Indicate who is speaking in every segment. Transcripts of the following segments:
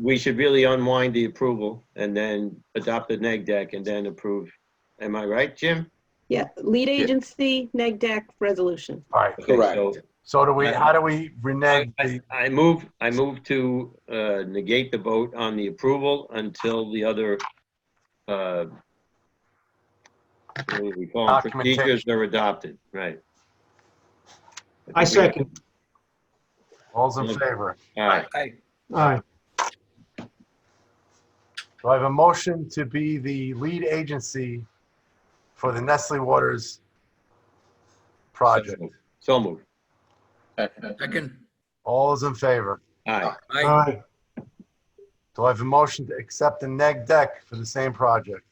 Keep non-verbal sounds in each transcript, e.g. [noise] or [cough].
Speaker 1: we should really unwind the approval and then adopt the neg deck and then approve. Am I right, Jim?
Speaker 2: Yeah, lead agency, neg deck, resolution.
Speaker 3: All right,
Speaker 1: Okay,
Speaker 4: Correct.
Speaker 1: so
Speaker 3: so do we, how do we renege?
Speaker 1: I
Speaker 3: the-
Speaker 1: I move, I move to uh, negate the vote on the approval until the other uh, what do we call them?
Speaker 3: Documentation.
Speaker 1: procedures are adopted, right?
Speaker 5: I second.
Speaker 3: All's in favor.
Speaker 1: All right,
Speaker 4: Aye.
Speaker 5: Aye.
Speaker 3: Do I have a motion to be the lead agency for the Nestle Waters project?
Speaker 1: so moved.
Speaker 6: É,
Speaker 4: Second.
Speaker 3: All is in favor.
Speaker 1: Aye,
Speaker 4: Aye.
Speaker 5: Aye.
Speaker 3: Do I have a motion to accept the neg deck for the same project?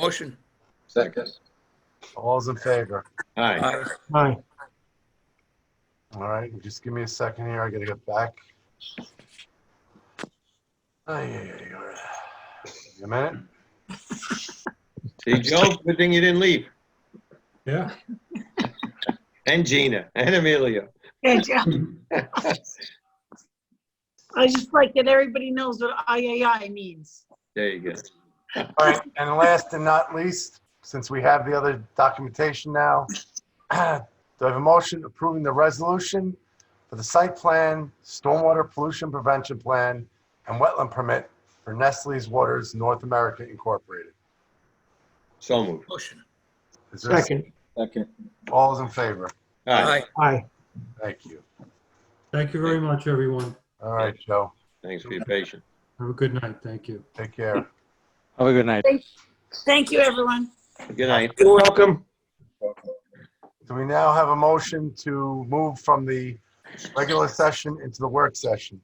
Speaker 4: Motion.
Speaker 6: Second.
Speaker 3: All is in favor.
Speaker 1: aye.
Speaker 4: Aye.
Speaker 5: Aye.
Speaker 3: All right, just give me a second here. I gotta get back. Ay, ay, ay, all right. Give me A minute?
Speaker 1: See, Joe, good thing you didn't leave.
Speaker 5: Yeah.
Speaker 1: And Gina, and Amelia.
Speaker 7: Good job. I just like that everybody knows what III means.
Speaker 1: There you go.
Speaker 3: All right, and last and not least, since we have the other documentation now, [clears throat] do I have a motion approving the resolution for the site plan, stormwater pollution prevention plan, and wetland permit for Nestle's Waters North America Incorporated?
Speaker 1: So moved.
Speaker 4: Motion.
Speaker 3: Is there a-
Speaker 5: Second.
Speaker 6: Second.
Speaker 3: All is in favor?
Speaker 1: Aye,
Speaker 5: Aye.
Speaker 3: Thank you.
Speaker 8: Thank you very much, everyone.
Speaker 3: All right, Joe,
Speaker 1: thanks for your patience.
Speaker 8: Have a good night. Thank you.
Speaker 3: take care.
Speaker 9: Have a good night.
Speaker 7: Thank you, everyone.
Speaker 1: Good night.
Speaker 5: Uh, You're welcome.
Speaker 3: Do we now have a motion to move from the regular session into the work session?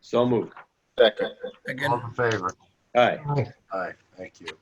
Speaker 1: So moved.
Speaker 6: Second.
Speaker 4: Second.
Speaker 3: All in favor?
Speaker 1: All right.
Speaker 5: Aye.
Speaker 3: All right, thank you.